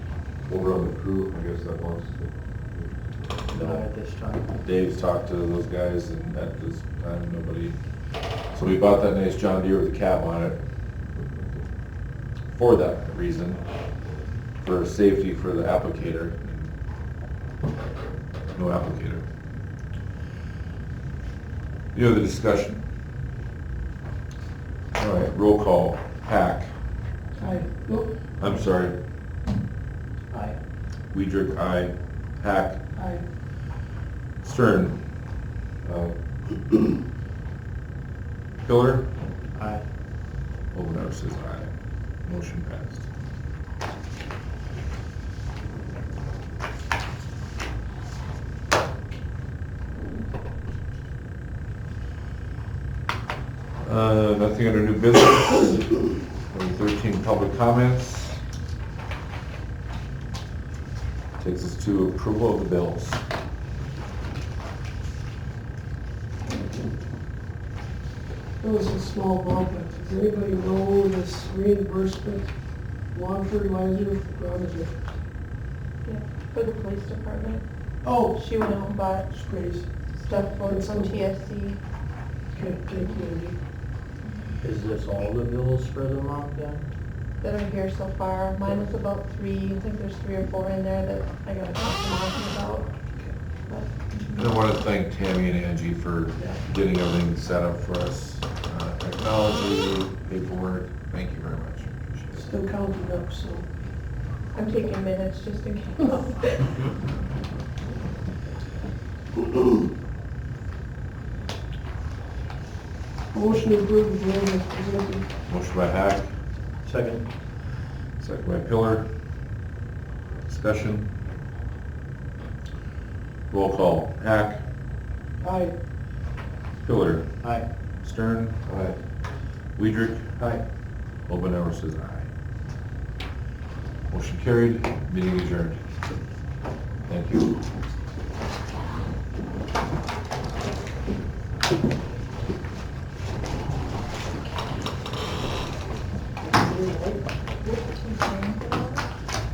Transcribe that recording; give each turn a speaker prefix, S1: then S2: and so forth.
S1: over on the crew, I guess that wants to.
S2: Not at this time.
S1: Dave's talked to those guys and at this time, nobody, so we bought that nice John Deere with a cab on it for that reason, for safety for the applicator. No applicator. Any other discussion? All right, roll call, Hack,
S2: Aye. Oop.
S1: I'm sorry,
S2: Aye.
S1: Weidrich, aye, Hack,
S2: Aye.
S1: Stern. Um, Pillar.
S2: Aye.
S1: Omenar says aye. Motion passed. Uh, nothing under new business. Number thirteen, public comments. Takes us to approval of the bills.
S3: There was a small bump, but does anybody know this reimbursement lawn fertilizer, what is it?
S4: Yeah, for the police department.
S3: Oh,
S4: She went out and bought
S3: it's crazy.
S4: stuff for some TSC.
S3: Okay, thank you, Andy.
S2: Is this all the bills for the month then?
S4: that are here so far. Mine was about three, I think there's three or four in there that I gotta talk to Monty about.
S1: And I want to thank Tammy and Angie for getting everything set up for us, uh, technology, paperwork, thank you very much, appreciate
S3: Still counting up, so.
S4: I'm taking minutes just in case.
S3: Motion approved, the amendment presented.
S1: it. Motion by Hack,
S2: Second.
S1: second by Pillar. Discussion. Roll call, Hack,
S3: Aye.
S1: Pillar,
S2: Aye.
S1: Stern. Aye. Weidrich.
S2: Aye.
S1: Obenauer says aye. Motion carried, meeting adjourned. Thank you.